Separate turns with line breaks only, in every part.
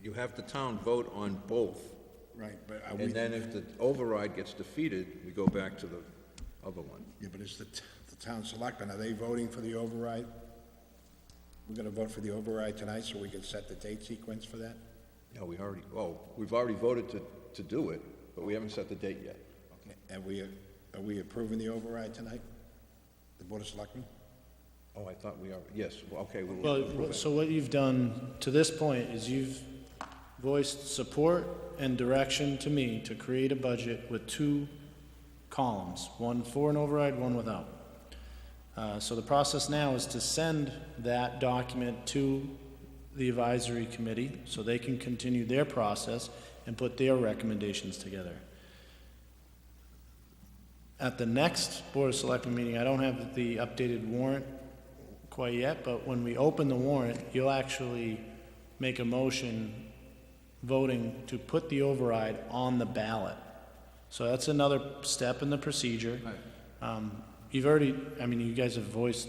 you have the town vote on both,
Right, but are we,
and
yeah,
then if the override gets defeated, we go back to the other one.
but it's the, t- the town selectmen, are they voting for the override? We're gonna vote for the override tonight so we can set the date sequence for that?
Yeah, we already, oh, we've already voted to, to do it, but we haven't set the date yet.
Okay. And we, are we approving the override tonight? The Board of Selectmen?
Oh, I thought we are, yes, well, okay, we will
Well, so what you've done to this point is you've voiced support and direction to me to create a budget with two columns, one for an override, one without. Uh, so the process now is to send that document to the advisory committee so they can continue their process and put their recommendations together. At the next Board of Selectmen meeting, I don't have the updated warrant quite yet, but when we open the warrant, you'll actually make a motion voting to put the override on the ballot. So that's another step in the procedure. Um, You've already, I mean, you guys have voiced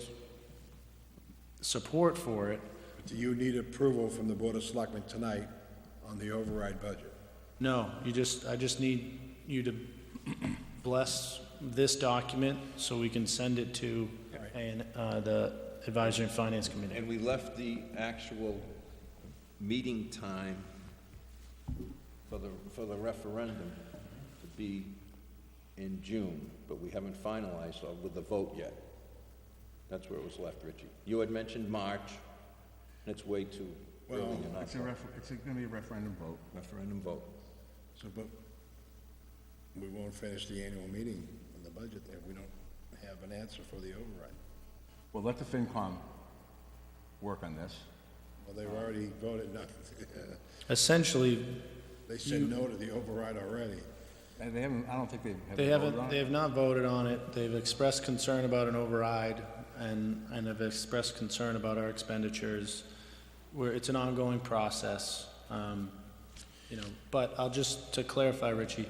support for it.
Do you need approval from the Board of Selectmen tonight on the override budget?
No, you just, I just need you to bless this document so we can send it to an- uh, the Advisory and Finance Committee.
And we left the actual meeting time for the, for the referendum to be in June, but we haven't finalized uh, with the vote yet. That's where it was left, Richie. You had mentioned March, and it's way too early
Well,
in
It's a
our
ref, it's gonna be a referendum vote.
referendum vote.
So, but we won't finish the annual meeting on the budget if we don't have an answer for the override.
Well, let the FinCom work on this.
Well, they've already voted not,
Essentially,
they said no to the override already.
And they haven't, I don't think they've.
They
voted on
haven't,
it.
they have not voted on it. They've expressed concern about an override and, and have expressed concern about our expenditures. Where it's an ongoing process, um, you know, but I'll just, to clarify, Richie,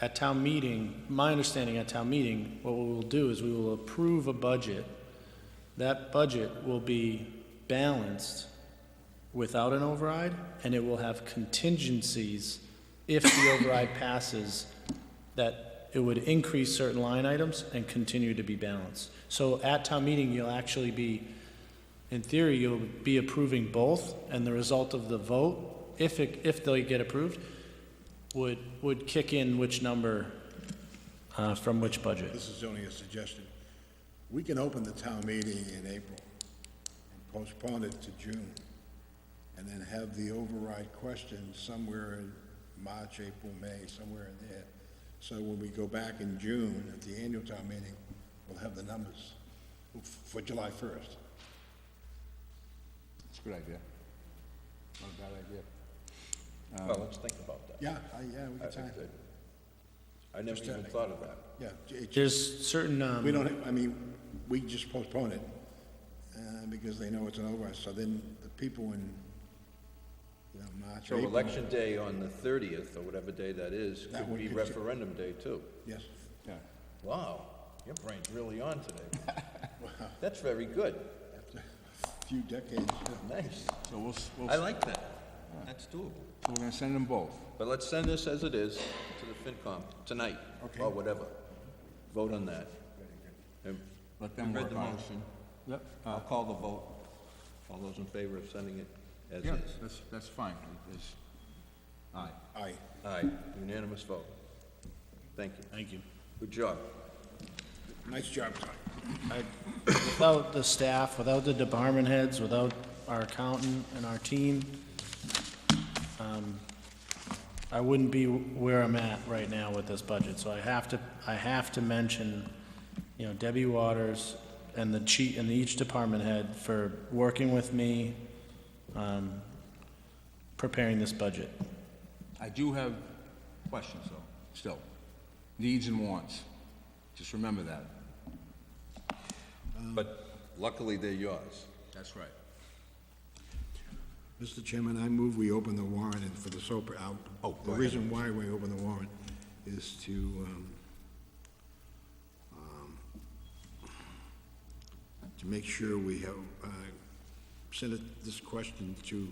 at town meeting, my understanding at town meeting, what we will do is we will approve a budget. That budget will be balanced without an override, and it will have contingencies if the override passes, that it would increase certain line items and continue to be balanced. So at town meeting, you'll actually be, in theory, you'll be approving both, and the result of the vote, if it, if they get approved, would, would kick in which number, uh, from which budget.
This is only a suggestion. We can open the town meeting in April and postpone it to June, and then have the override question somewhere in March, April, May, somewhere in there. So when we go back in June at the annual town meeting, we'll have the numbers for July first.
It's a good idea. Not a bad idea. Um,
Well, let's think about that.
Yeah, I- yeah, we got time,
I never
uh,
even thought of that.
yeah. it-
There's certain, um.
We don't, I mean, we just postpone it, uh, because they know it's an override, so then the people in, you know, March,
So
April.
election day on the thirtieth, or whatever day that is,
That
could
one
be
could-
referendum day too.
Yes,
Yeah.
Wow, your brain's really on today. That's very good,
after a few decades, yeah.
nice.
So we'll, s- we'll,
I
s-
like that. That's doable.
so we're gonna send them both.
But let's send this as it is to the FinCom tonight,
Okay.
or whatever. Vote on that. And
Let them
You read Uh,
work
the
on it.
motion.
Yep.
I'll call the vote. All those in favor of sending it as
Yeah,
is?
that's, that's fine. It is- aye.
aye.
Aye, unanimous vote. Thank you.
Thank you.
Good job.
Nice job, Tom.
Without the staff, without the department heads, without our accountant and our team, um, I wouldn't be where I'm at right now with this budget, so I have to, I have to mention, you know, Debbie Waters and the chief, and each department head for working with me, um, preparing this budget.
I do have questions though, still. Needs and wants. Just remember that.
But luckily, they're yours.
That's right.
Mr. Chairman, I move we open the warrant and for the soap, uh,
Oh, go
the
ahead.
reason why we open the warrant is to, um, um, to make sure we have, uh, send it- this question to